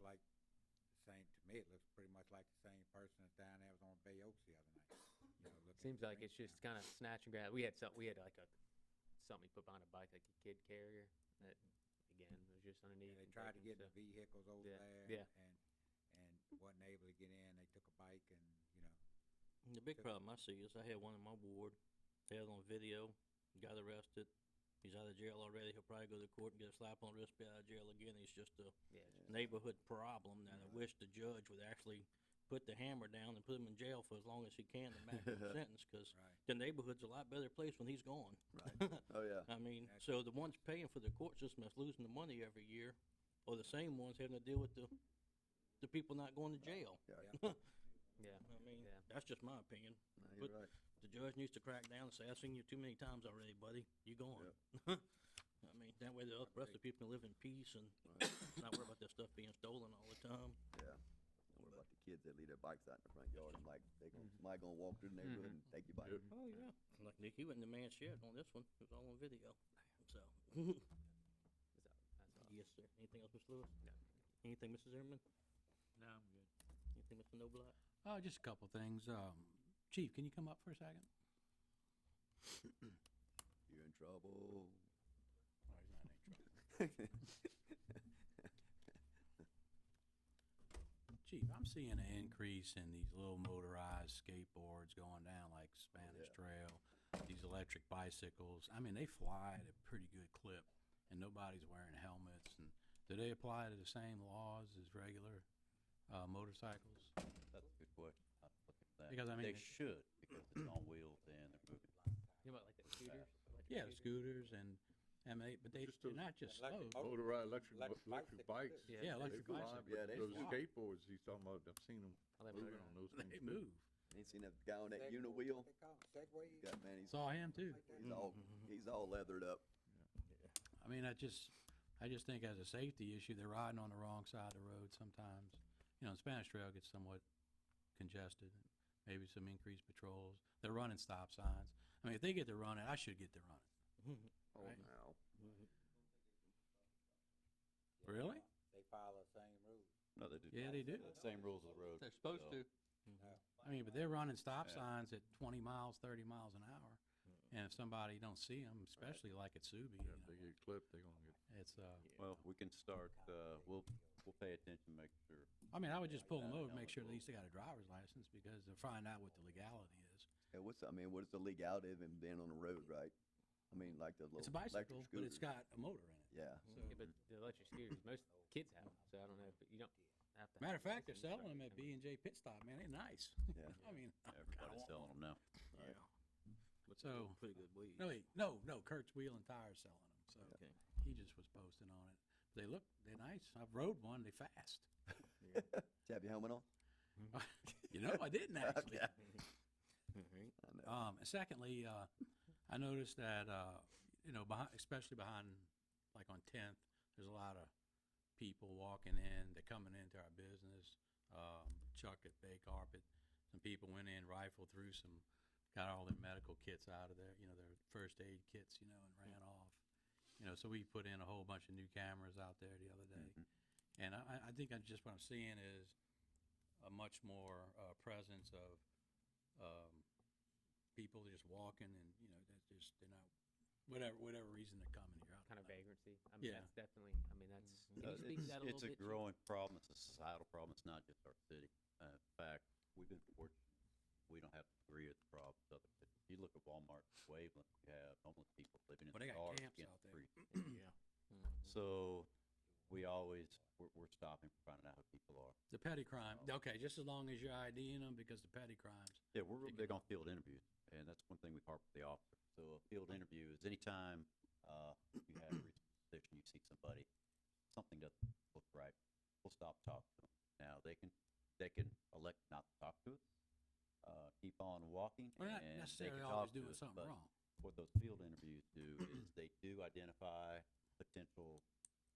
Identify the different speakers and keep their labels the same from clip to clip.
Speaker 1: like the same, to me, it looks pretty much like the same person that's down there was on Bay Oaks the other night. you know, looking
Speaker 2: Seems
Speaker 1: at
Speaker 2: like it's
Speaker 1: Greenstown.
Speaker 2: just kind of snatch and grab. We had some, we had like a, something you put behind a bike, like a kid carrier, that, again, was just underneath.
Speaker 1: Yeah, they
Speaker 2: and
Speaker 1: tried to
Speaker 2: taken,
Speaker 1: get
Speaker 2: so-
Speaker 1: the vehicles over
Speaker 2: Yeah,
Speaker 1: there.
Speaker 2: yeah.
Speaker 1: And, and wasn't able to get in, they took a bike and, you know,
Speaker 3: The big
Speaker 1: Good.
Speaker 3: problem I see is I had one in my ward. They had it on video. Got arrested. He's out of jail already. He'll probably go to court and get a slap on the wrist, be out of jail again. It's just a
Speaker 2: Yeah, it's just-
Speaker 3: neighborhood problem that I
Speaker 1: Right.
Speaker 3: wish the judge would actually put the hammer down and put him in jail for as long as he can, the maximum sentence, because
Speaker 1: right,
Speaker 3: the neighborhood's a lot better place when he's gone.
Speaker 4: Right. Oh, yeah.
Speaker 3: I mean,
Speaker 1: Exactly.
Speaker 3: so the ones paying for the court system that's losing the money every year are the same ones having to deal with the, the people not going to jail.
Speaker 2: yeah,
Speaker 3: I mean,
Speaker 2: Yeah.
Speaker 3: that's just my opinion.
Speaker 4: No, you're
Speaker 3: But-
Speaker 4: right.
Speaker 3: The judge needs to crack down and say, I've seen you too many times already, buddy. You gone. I mean, that way the oth- rest of the people can live in peace and
Speaker 4: Right.
Speaker 3: not worry about their stuff being stolen all the time.
Speaker 4: Yeah. Don't worry about the kids that leave their bikes out in the front yard. I'm like, they gonna,
Speaker 5: Mm-hmm.
Speaker 4: somebody gonna walk through the neighborhood and
Speaker 6: Mm-hmm.
Speaker 4: take your bike.
Speaker 3: Oh, yeah. Like Nick, he wasn't the man shed on this one. It was all on video. So,
Speaker 2: that's all- that's all.
Speaker 3: yes, sir. Anything else, Mr. Lewis?
Speaker 2: No.
Speaker 3: Anything, Mrs. Zimmerman?
Speaker 6: No, I'm good.
Speaker 3: Anything, Mr. Noblock?
Speaker 6: Uh, just a couple things. Um, Chief, can you come up for a second?
Speaker 4: You're in trouble.
Speaker 6: Oh, he's not in any trouble. Chief, I'm seeing an increase in these little motorized skateboards going down like Spanish
Speaker 4: yeah.
Speaker 6: Trail, these electric bicycles. I mean, they fly at a pretty good clip, and nobody's wearing helmets. And do they apply to the same laws as regular uh, motorcycles?
Speaker 5: That's a good question. I'm looking at that.
Speaker 6: Because, I
Speaker 5: They
Speaker 6: mean, it-
Speaker 5: should, because it's on wheels and they're moving.
Speaker 2: You know about like the scooters? electric
Speaker 6: Yeah, the
Speaker 2: scooters?
Speaker 6: scooters and, and they, but they,
Speaker 7: Just
Speaker 6: they're
Speaker 7: those
Speaker 6: not just slow.
Speaker 1: electric
Speaker 4: Oh,
Speaker 1: motor-
Speaker 7: Motorized Oh, electric, mo-
Speaker 1: Electric
Speaker 7: electric
Speaker 1: bicycles,
Speaker 7: bikes.
Speaker 1: too.
Speaker 2: Yeah,
Speaker 6: Yeah,
Speaker 7: They
Speaker 6: electric
Speaker 7: fly,
Speaker 6: bicycles.
Speaker 4: but Yeah, they
Speaker 7: Those
Speaker 4: fly.
Speaker 7: skateboards he's talking about, I've seen them
Speaker 2: All them
Speaker 7: moving
Speaker 2: motorized.
Speaker 7: on those things.
Speaker 6: They move.
Speaker 4: Ain't seen that guy on that
Speaker 1: Segway,
Speaker 4: unit
Speaker 1: what
Speaker 4: wheel?
Speaker 1: they call 'em, Segway?
Speaker 4: God, man, he's,
Speaker 6: Saw him too.
Speaker 1: Like that?
Speaker 4: he's all,
Speaker 3: Mm-hmm.
Speaker 4: he's all leathered up.
Speaker 6: I mean, I just, I just think as a safety issue, they're riding on the wrong side of the road sometimes. You know, Spanish Trail gets somewhat congested, maybe some increased patrols. They're running stop signs. I mean, if they get to running, I should get to running.
Speaker 4: Oh,
Speaker 6: Right.
Speaker 4: now.
Speaker 1: Yeah,
Speaker 6: Really?
Speaker 1: They follow the same rules.
Speaker 5: No, they do.
Speaker 6: Yeah, they do.
Speaker 5: The Same rules of the road. They're supposed to.
Speaker 6: I mean, but they're running stop
Speaker 5: Yeah.
Speaker 6: signs at twenty miles, thirty miles an hour. And if somebody don't see them, especially like at Subi, you
Speaker 7: Yeah, if they
Speaker 6: know,
Speaker 7: get clipped, they gonna get.
Speaker 6: it's, uh,
Speaker 5: Well, we can start, uh, we'll, we'll pay attention, make sure.
Speaker 6: I mean, I would just
Speaker 5: Yeah,
Speaker 6: pull them
Speaker 5: yeah,
Speaker 6: over,
Speaker 5: no,
Speaker 6: make
Speaker 5: it
Speaker 6: sure at
Speaker 5: will.
Speaker 6: least they got a driver's license because they'll find out what the legality is.
Speaker 4: Yeah, what's, I mean, what is the legality of him being on the road, right? I mean, like the little
Speaker 6: It's a
Speaker 4: electric
Speaker 6: bicycle, but it's
Speaker 4: scooters.
Speaker 6: got a motor in it.
Speaker 4: Yeah.
Speaker 3: Mm-hmm.
Speaker 2: Yeah, but the electric scooters, most kids have 'em, so I don't know, but you don't have to.
Speaker 6: Matter
Speaker 2: have
Speaker 6: of fact, they're
Speaker 2: license or
Speaker 6: selling them at
Speaker 2: anything.
Speaker 6: B and J Pit Stop, man, they're nice.
Speaker 4: Yeah.
Speaker 6: I mean, I kinda
Speaker 5: Everybody's
Speaker 6: want
Speaker 5: selling
Speaker 6: one.
Speaker 5: them now.
Speaker 3: Yeah.
Speaker 6: So-
Speaker 3: Pretty good weed.
Speaker 6: No, wait, no, no, Kurt's Wheel and Tire selling them, so
Speaker 3: Okay.
Speaker 6: he just was posting on it. They look, they're nice, I've rode one, they fast.
Speaker 4: Did you have your helmet on?
Speaker 6: You know, I didn't actually.
Speaker 4: Okay.
Speaker 3: Alright.
Speaker 4: I know.
Speaker 6: Um, and secondly, uh, I noticed that, uh, you know, behind, especially behind, like on Tenth, there's a lot of people walking in, they're coming into our business. Um, Chuck at Bay Carpet, some people went in, rifled through some, got all their medical kits out of there, you know, their first aid kits, you know, and ran
Speaker 5: Mm-hmm.
Speaker 6: off. You know, so we put in a whole bunch of new cameras out there the other day.
Speaker 5: Mm-hmm.
Speaker 6: And I, I- I think I just what I'm seeing is a much more, uh, presence of, um, people just walking and, you know, that's just, they're not, whatever, whatever reason they're coming here. I don't
Speaker 2: Kind of
Speaker 6: know.
Speaker 2: vagrancy. I mean,
Speaker 6: Yeah.
Speaker 2: that's definitely, I mean, that's. Can
Speaker 5: Uh,
Speaker 2: you speak to
Speaker 5: it's-
Speaker 2: that a little bit?
Speaker 5: It's a growing problem. It's a societal problem. It's not just our city. Uh, in fact, we've been fortunate. We don't have to agree with the problems other cities. You look at Walmart, Waveland, we have homeless people living in
Speaker 6: Well, they got
Speaker 5: cars
Speaker 6: camps
Speaker 5: against
Speaker 6: out
Speaker 5: the
Speaker 6: there.
Speaker 5: street.
Speaker 6: Yeah.
Speaker 2: Hmm.
Speaker 5: So we always, we're, we're stopping, finding out who people are.
Speaker 6: The petty crime, okay, just as long as you're IDing them because the petty crimes,
Speaker 5: Yeah, we're real
Speaker 6: Figure
Speaker 5: big on field interviews, and that's one thing we harp with the officer. So a field interview is anytime, uh, you have a position, you see somebody, something doesn't look right, we'll stop talking to them. Now, they can, they can elect not to talk to us, uh, keep on walking,
Speaker 6: we're
Speaker 5: and
Speaker 6: not
Speaker 5: they
Speaker 6: necessarily
Speaker 5: can
Speaker 6: always
Speaker 5: talk to
Speaker 6: doing
Speaker 5: us,
Speaker 6: something
Speaker 5: but
Speaker 6: wrong.
Speaker 5: What those field interviews do is they do identify potential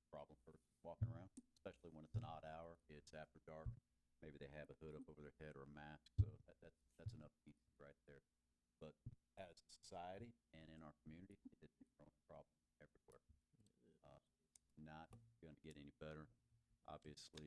Speaker 5: problem for walking around, especially when it's an odd hour, it's after dark, maybe they have a hood up over their head or a mask, so that, that, that's enough heat right there. But as a society and in our community, it's a growing problem everywhere. Uh, Not gonna get any better, obviously,